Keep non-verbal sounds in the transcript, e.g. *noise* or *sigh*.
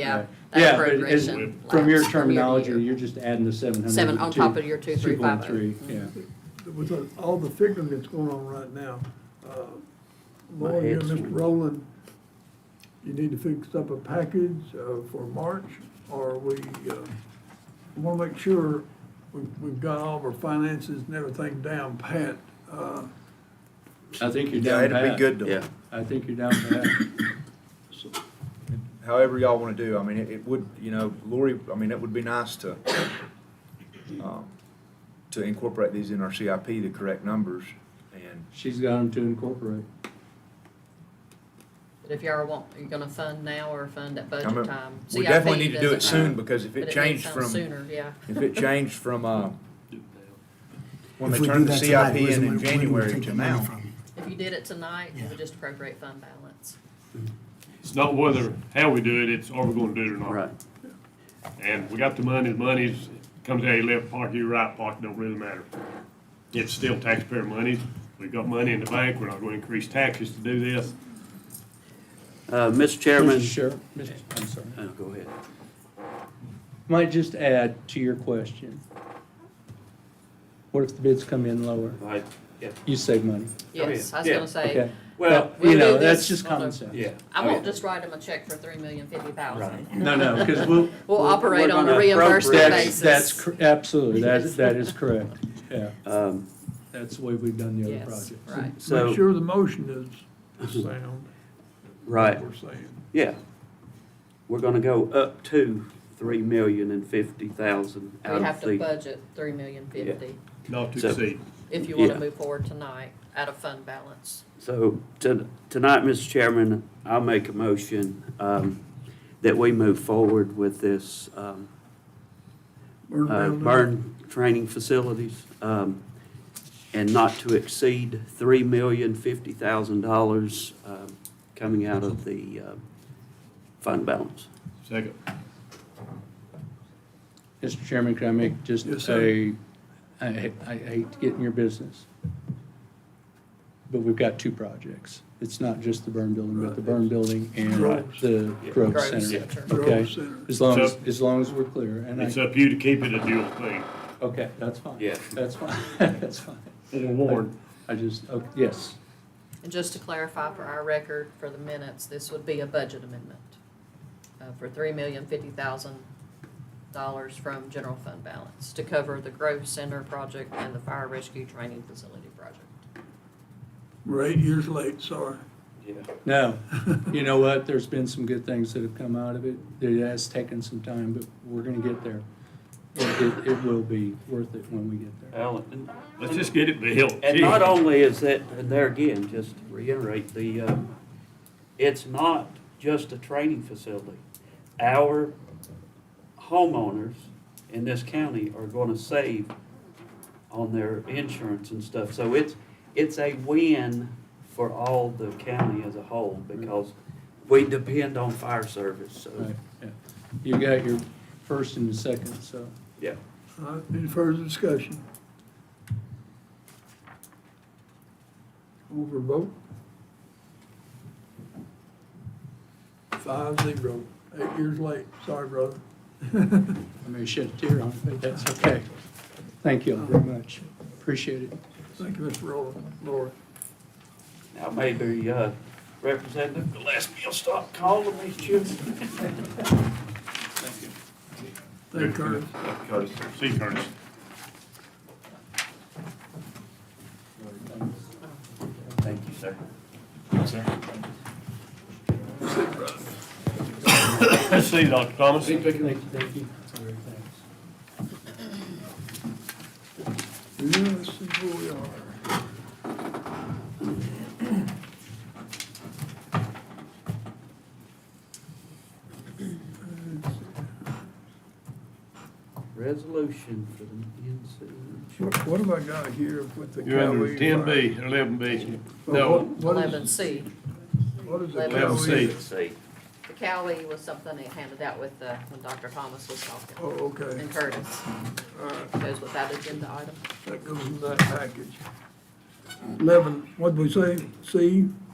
Yeah. that Yeah, but road as- ration from your lapse to terminology, year. you're just adding the seven hundred. Seven on top of your two, three, five, oh. yeah. with all the figuring that's going on right now, uh, Lord, you and head's- Mr. Rowland, you need to fix up a package uh, for March, or we want to make sure we've we've got all of our finances and everything down pat. Uh, I think you're Yeah, down it'd pat. be good to, Yeah. I think you're down pat. however y'all wanna do, I mean, it, it would, you know, Lori, I mean, it would be nice to, um, to incorporate these in our CIP, the correct numbers, and, She's got them to incorporate. But if y'all want, you're gonna fund now or fund at I budget mean, time. we CIP definitely need to do it doesn't matter, soon, because if but it needs changed done from, Sooner, yeah. *laughs* if it changed from, uh, when they If we turned do the that tonight, CIP where's in the in money- where do we January take to the money now. from? If you did it tonight, you Yeah. would just appropriate fund balance. It's not whether, how we do it, it's are we gonna do it or not. And we got the money, the money's, comes out of your left pocket, your right pocket, don't really matter. It's still taxpayer money, we've got money in the bank, we're not gonna increase taxes to do this. Uh, Mr. Chairman, Mr. Sheriff, Mr. I'm sorry. oh, go ahead. Might just add to your question. What if the bids come in lower? Right, You save money. Yes, I was yeah, gonna say, Okay. well, But, You we'll know, do that's this just on common the- sense. yeah. I oh, won't yeah. just write them a check for three million fifty thousand. Right. No, no, *laughs* because we'll. We'll operate we're on a gonna reimbursement appropriate- That's, basis. that's, cor- absolutely, that, that is correct. Yeah, Um, that's the way we've done the other Yes, projects. right. Make So, sure the motion is sound, right, we're saying. yeah. We're gonna go up to three million and fifty thousand We out have of to the, budget three million fifty Not to So- exceed. if you wanna Yeah. move forward tonight out of fund balance. so to- tonight, Mr. Chairman, I'll make a motion um, that we move forward with this um, Burn uh, down the- burn training facilities um, and not to exceed three million fifty thousand dollars um, coming out of the uh, fund balance. Second. Mr. Chairman, can I make just Yes, a, sir. I, I I hate to get in your business, but we've got two projects. It's not just the burn building, but the burn building and Right. the Grove Grove Center. Center. Grove Okay, Center. as long as, So- as long as we're clear, and It's I, up to you to keep it a dual thing, okay, that's fine. Yeah. That's fine, *laughs* that's fine. or warn. I just, oh, yes, And just to clarify for our record, for the minutes, this would be a budget amendment uh, for three million fifty thousand dollars from general fund balance to cover the Grove Center project and the fire rescue training facility project. We're eight years late, sorry. no, you know what, there's been some good things that have come out of it, it has taken some time, but we're gonna get there. It, it- it will be worth it when we get there. Alan, Let's just get it built. And not only is that, and there again, just to reiterate, the, um, it's not just a training facility. Our homeowners in this county are gonna save on their insurance and stuff. So it's, it's a win for all the county as a whole because we depend on fire service, so, Right, yeah. You got your first and the second, so. yeah. All right, Any further discussion? Over vote? Five zero, eight years late, sorry, brother. I may shed a tear on it, but that's okay. Thank you all very much. Appreciate it. Thank you, Mr. Rowland, Laura. Now maybe, uh, Representative Gillespie will stop calling these children. Thank you, Curtis. Curtis. See Curtis. Thank you, sir. Let's see, Dr. Thomas. Thank you, thank you. Sorry, thanks. Yes, where we are. resolution for the What- What have I got here with the You're under Cowee? ten B, eleven B. Well, No, what- what is- Eleven C, What is the eleven eleven C. Cowee? NC. the Cowee was something they handed out with, uh, when Dr. Thomas was Oh, talking, okay, and Curtis, all right. goes with that agenda item. That goes in that package. Eleven, what'd we say, C? Uh,